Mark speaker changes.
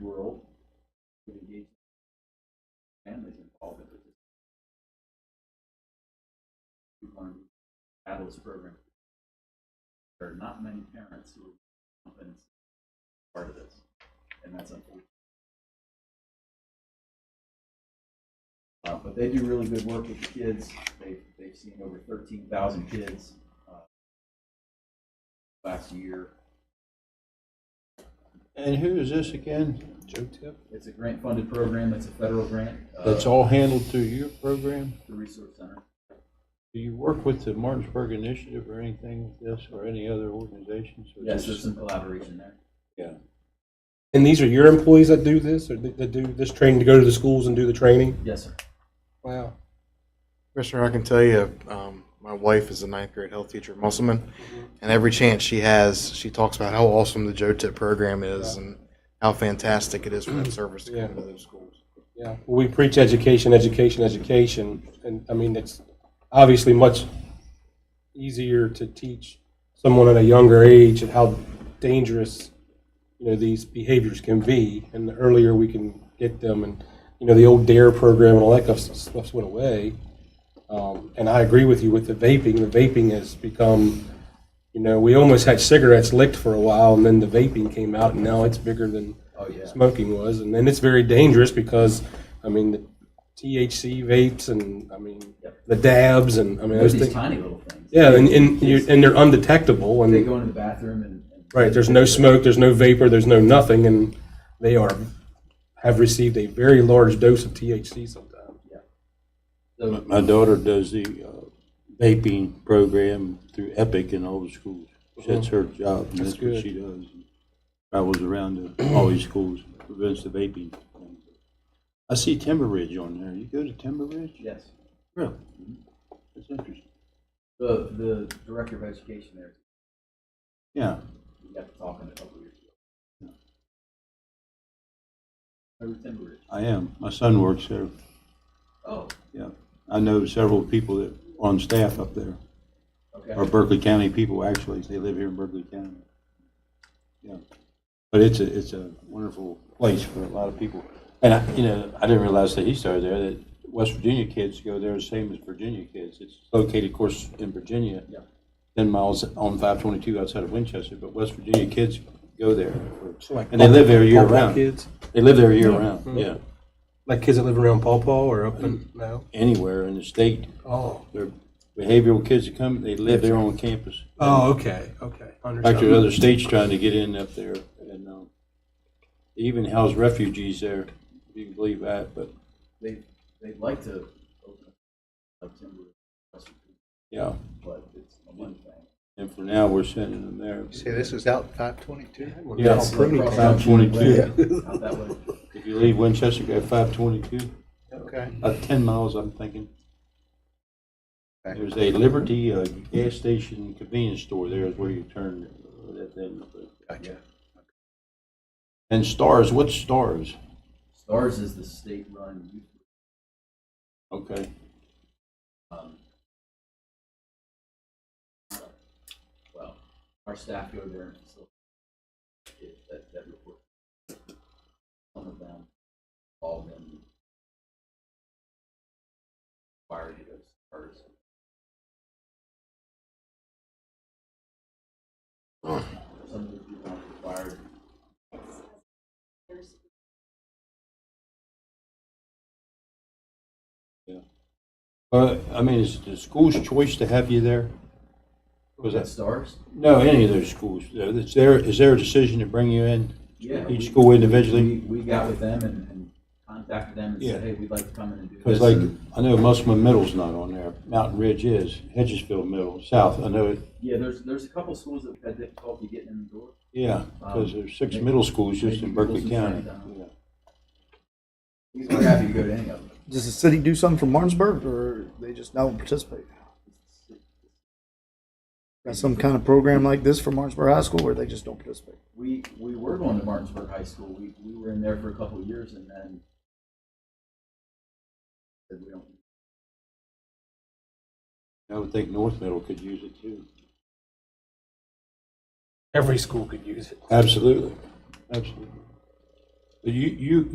Speaker 1: fabulous program. There are not many parents who are confident in part of this, and that's unfortunate. Uh, but they do really good work with the kids. They've, they've seen over thirteen thousand kids, uh, last year.
Speaker 2: And who is this again? Joe Tip?
Speaker 1: It's a grant-funded program. It's a federal grant. uh,
Speaker 2: That's all handled through your program?
Speaker 1: The Resource Center.
Speaker 2: Do you work with the Martinsburg Initiative or anything with this or any other organizations? or
Speaker 1: Yes, there's
Speaker 2: just-
Speaker 1: some collaboration there.
Speaker 2: Yeah.
Speaker 3: And these are your employees that do this, or that that do this training to go to the schools and do the training?
Speaker 1: Yes, sir.
Speaker 3: Wow.
Speaker 4: Commissioner, I can tell you, um, my wife is a ninth grade health teacher at Musselman, and every chance she has, she talks about how awesome the Joe Tip program is and how fantastic it is for that service to
Speaker 3: Yeah.
Speaker 4: come to those schools.
Speaker 3: Yeah, we preach education, education, education, and I mean, it's obviously much easier to teach someone at a younger age and how dangerous, you know, these behaviors can be, and the earlier we can get them, and, you know, the old DARE E program and all that stuff, stuff went away. Um, and I agree with you with the vaping, the vaping has become, you know, we almost had cigarettes licked for a while, and then the vaping came out, and now it's bigger than
Speaker 1: Oh, yeah.
Speaker 3: smoking was, and then it's very dangerous because, I mean, the THC vapes and I mean
Speaker 1: Yep.
Speaker 3: the dabs and I mean
Speaker 1: There's
Speaker 3: those
Speaker 1: these
Speaker 3: things.
Speaker 1: tiny little things.
Speaker 3: Yeah, and and, you, and they're undetectable
Speaker 1: They
Speaker 3: and
Speaker 1: go into the bathroom and. and-
Speaker 3: right. There's no smoke. There's no vapor. There's no nothing, and they are have received a very large dose of THC sometimes.
Speaker 1: So,
Speaker 2: My daughter does the uh, vaping program through Epic in all the schools. That's her job, and that's what
Speaker 3: good.
Speaker 2: she does. Travels around to all these schools, prevents the vaping. I see Timber Ridge on there. You go to Timber Ridge?
Speaker 1: yes,
Speaker 2: Really? That's interesting.
Speaker 1: the, the director of education there,
Speaker 2: Yeah.
Speaker 1: we got to talking a couple years ago. Over Timber Ridge.
Speaker 2: I am. My son works there.
Speaker 1: Oh,
Speaker 2: Yeah. I know several people that are on staff up there, or
Speaker 1: okay.
Speaker 2: Berkeley County people, actually. They live here in Berkeley County. Yeah. But it's a, it's a wonderful place for a lot of people. And I, you know, I didn't realize that he started there, that West Virginia kids go there the same as Virginia kids. It's located, of course, in Virginia.
Speaker 1: Yeah.
Speaker 2: Ten miles on five twenty-two outside of Winchester, but West Virginia kids go there.
Speaker 3: So like
Speaker 2: And they live there year
Speaker 3: Paw Paw
Speaker 2: round.
Speaker 3: Kids,
Speaker 2: They live there year round, yeah.
Speaker 3: like kids that live around Paw Paw or up in no.
Speaker 2: Anywhere in the state.
Speaker 3: Oh.
Speaker 2: They're behavioral kids that come, they live there on campus.
Speaker 3: Oh. Okay. Okay.
Speaker 2: In fact, there's other states trying to get in up there, and um, they even house refugees there, if you can believe that, but,
Speaker 1: They, they'd like to open up Timber Ridge,
Speaker 2: yeah.
Speaker 1: but it's a one thing.
Speaker 2: And for now, we're sending them there.
Speaker 5: See, this is out five twenty-two.
Speaker 2: Yeah.
Speaker 1: It's across the
Speaker 2: 522.
Speaker 1: Out that way.
Speaker 2: If you leave Winchester, go five twenty-two,
Speaker 5: Okay.
Speaker 2: about ten miles, I'm thinking. There's a Liberty uh, gas station convenience store there is where you turn uh, that thing.
Speaker 5: Gotcha.
Speaker 2: And Stars, what's Stars?
Speaker 1: Stars is the state-run youth
Speaker 2: Okay.
Speaker 1: Um, Well, our staff go there and facilitate that, that report. Some of them, all of them. Require you to first. Some of the people aren't required.
Speaker 2: Uh, I mean, is it the school's choice to have you there? Was
Speaker 1: that
Speaker 2: that,
Speaker 1: stars?
Speaker 2: no, any of those schools, uh, is there, is there a decision to bring you in?
Speaker 1: Yeah.
Speaker 2: Each
Speaker 1: we-
Speaker 2: school individually?
Speaker 1: We, we got with them and, and contacted them and
Speaker 2: Yeah.
Speaker 1: said, hey, we'd like to come in and do this.
Speaker 2: Because like, I know Musselman Middle's not on there, Mountain Ridge is, Hedgesville Middle, South, I know, it.
Speaker 1: Yeah, there's, there's a couple schools that had difficulty getting in the door.
Speaker 2: yeah, because there's six
Speaker 1: Um, Maybe-
Speaker 2: middle schools just in
Speaker 1: maybe
Speaker 2: Berkeley
Speaker 1: Wilson's
Speaker 2: County.
Speaker 1: right down.
Speaker 2: Yeah.
Speaker 1: We're happy to go to any of them.
Speaker 5: Does the city do something for Martinsburg, or they just don't participate? Got some kind of program like this for Martinsburg High School, where they just don't participate?
Speaker 1: We, we were going to Martinsburg High School. We, we were in there for a couple of years and then said we don't.
Speaker 2: I would think North Middle could use it too.
Speaker 3: Every school could use it.
Speaker 2: Absolutely, absolutely. But You, you,